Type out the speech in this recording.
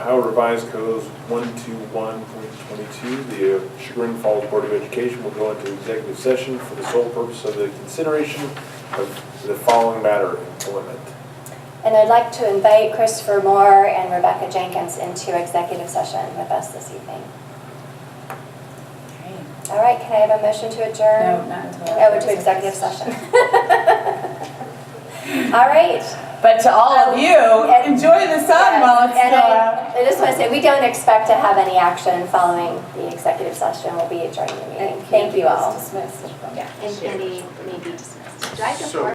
Ohio Revised Codes 121.22, the Chagrin Falls Board of Education will go into executive session for the sole purpose of the consideration of the following matter, employment. And I'd like to invite Christopher Moore and Rebecca Jenkins into executive session with us this evening. All right, can I have a motion to No, adjourn? not until. Oh, to executive session. All right. But to all of you, Um, And- enjoy the sun while it's And still out. I I just want to say, we don't expect to have any action following the executive session. We'll be adjourning the meeting. Thank you all. Dismissed. And can be, may be dismissed. So-